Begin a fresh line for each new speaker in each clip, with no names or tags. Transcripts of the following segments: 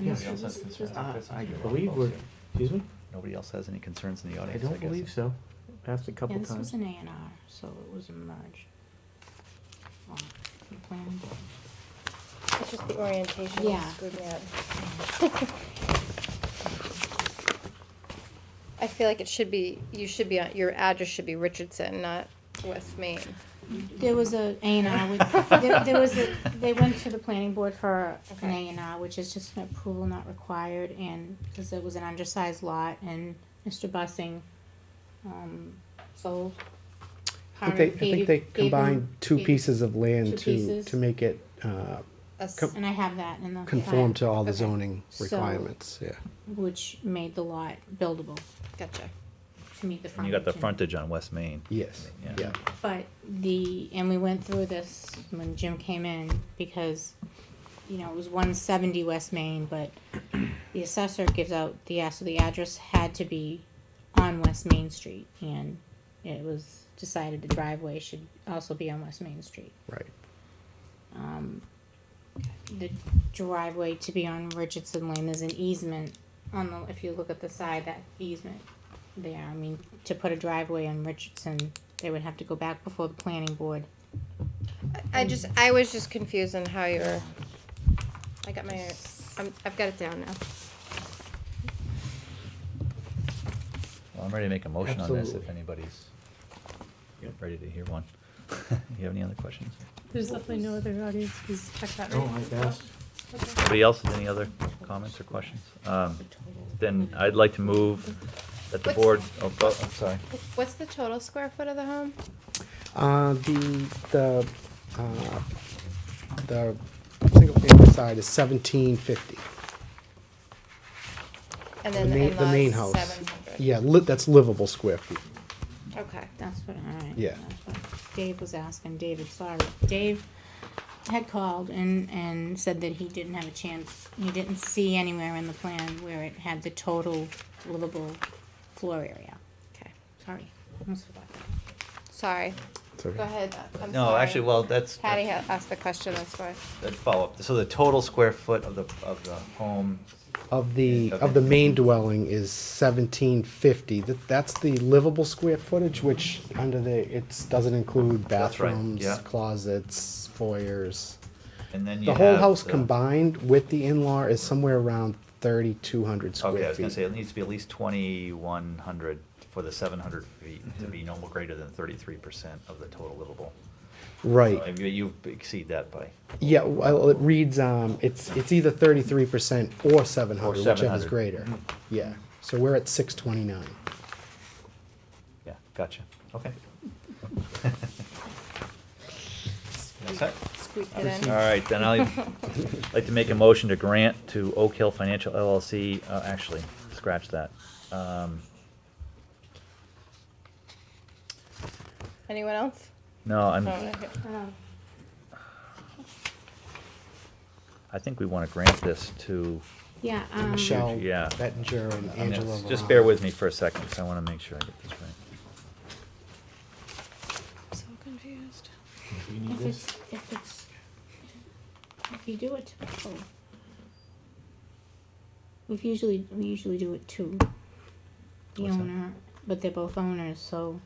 Nobody
Yeah.
else has concerns
Uh,
like this?
I believe we're, excuse me?
Nobody else has any concerns in the
I
audience, I
don't
guess.
believe so. Asked a
Yeah,
couple
this was
times.
an A and R, so it was a merge. Um, the planning board.
It's just the orientation
Yeah.
is screwed me up. I feel like it should be, you should be, on your address should be Richardson, not West Main.
There was a A and R, with- there, there was a, they went to the planning board for an A
Okay.
and R, which is just an approval not required, and, cause it was an undersized lot, and Mr. Bussing, um, sold.
I think they, I think they combined two pieces of
two
land to,
pieces.
to make it, uh,
Us-
Com-
And I have that in the.
conform to all the
Okay.
zoning
So-
requirements, yeah.
Which made the lot buildable
Gotcha.
to meet the
And you
frontage.
got the
and-
frontage on West Main.
Yes,
Yeah.
yeah.
But the, and we went through this when Jim came in, because, you know, it was one seventy West Main, but the assessor gives out the, ad- so the address had to be on West Main Street, and it was decided the driveway should also be on West Main Street.
Right.
Um, the driveway to be on Richardson Lane, there's an easement on the, if you look at the side, that easement there, I mean, to put a driveway on Richardson, they would have to go back before the planning board.
I I just, I was just confused on how you were, I got my, I'm, I've got it down now.
Well, I'm ready to make a motion on this if
Absolutely.
anybody's
Yep.
ready to hear one. You have any other questions?
There's definitely no other audience, because check that.
No,
right?
I've asked.
Okay.
Anybody else with any other comments or questions? Um, Then I'd like to move that the
What's-
board, oh, oh, I'm sorry.
What's the total square foot of the home?
Uh, the, the, uh, the single family side is seventeen fifty.
And
The
then the
main, the main
in-laws,
house.
seven hundred?
Yeah, li- that's livable square feet.
Okay.
That's what, alright.
Yeah.
that's what Dave was asking, David, sorry, Dave had called and, and said that he didn't have a chance, he didn't see anywhere in the plan where it had the total livable floor area.
Okay.
Sorry, almost forgot that.
Sorry.
So-
Go ahead. I'm
No,
sorry.
actually, well, that's.
Patty
that's-
had asked the question, that's why.
That follow-up, so the total square foot of the, of the home,
Of the,
Okay.
of the main dwelling is seventeen fifty. That, that's the livable square footage, which under the, it doesn't include
That's right,
bathrooms,
yeah.
closets, foyers.
and then you
The
have.
whole house
the-
combined with the in-law is somewhere around thirty-two hundred square feet.
Okay, I was gonna say, it needs to be at least twenty-one hundred for the seven hundred feet
Mm-hmm.
to be no greater than thirty-three percent of the total livable.
Right,
So You, you exceed that by,
yeah, well, it reads, um, it's, it's either thirty-three percent or seven hundred, whichever is
700.
greater. Yeah, so we're at six twenty-nine.
yeah, gotcha, okay. All set?
Squeaked it in.
All right, then I'd like to make a motion to grant to Oak Hill Financial LLC, uh, actually, scratch that. Um,
Anyone else?
No, I'm,
No, Oh, okay.
I think we wanna grant this to,
Yeah, um,
Michelle
yeah.
Bettinger and
I mean,
Angela.
it's- just
Varane.
bear with me for a second, 'cause I wanna make sure I get this right.
I'm so confused.
Do you need
if
this?
it's, if it's, if you do it to people. We've usually, we usually do it to the
What's that?
owner, but they're both owners, so.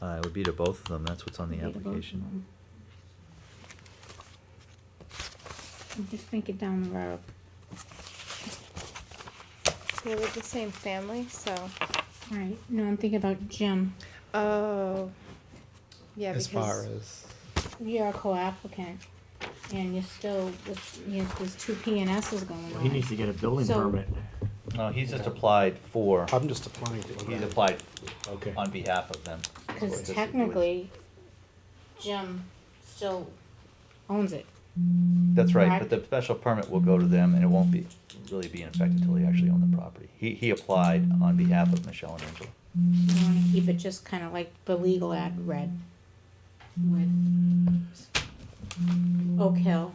Uh, it would be to both of them, that's what's on the
it'd be to both of
application.
them. I'm Just think it down the road.
They were the same family, so.
Right, no, I'm thinking about Jim.
Oh. Yeah,
As far
because
as,
You're a co-applicant and you're still, you know, there's two P and S's going
Well,
on.
He needs to get a building
So-
permit.
No, he's just applied for,
I'm just applying to.
he's applied
Okay.
on behalf of them.
Because technically, Jim still owns it.
That's right, but the special permit will go to them, and it won't be, really be in effect until they actually own the property. He, he applied on behalf of Michelle and Angela.
You want to keep it just kind of like the legal ad read with Oak Hill.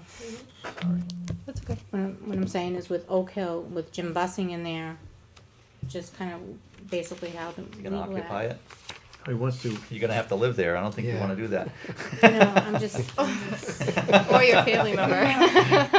that's okay.
What I'm, what I'm saying is with Oak Hill, with Jim Bussing in there, just kind of basically how the
You
legal
gonna occupy
ad-
it?
He wants to,
You're gonna have to live there, I don't think you
Yeah.
wanna do that.
No, I'm just- I'm just-
Or your family member.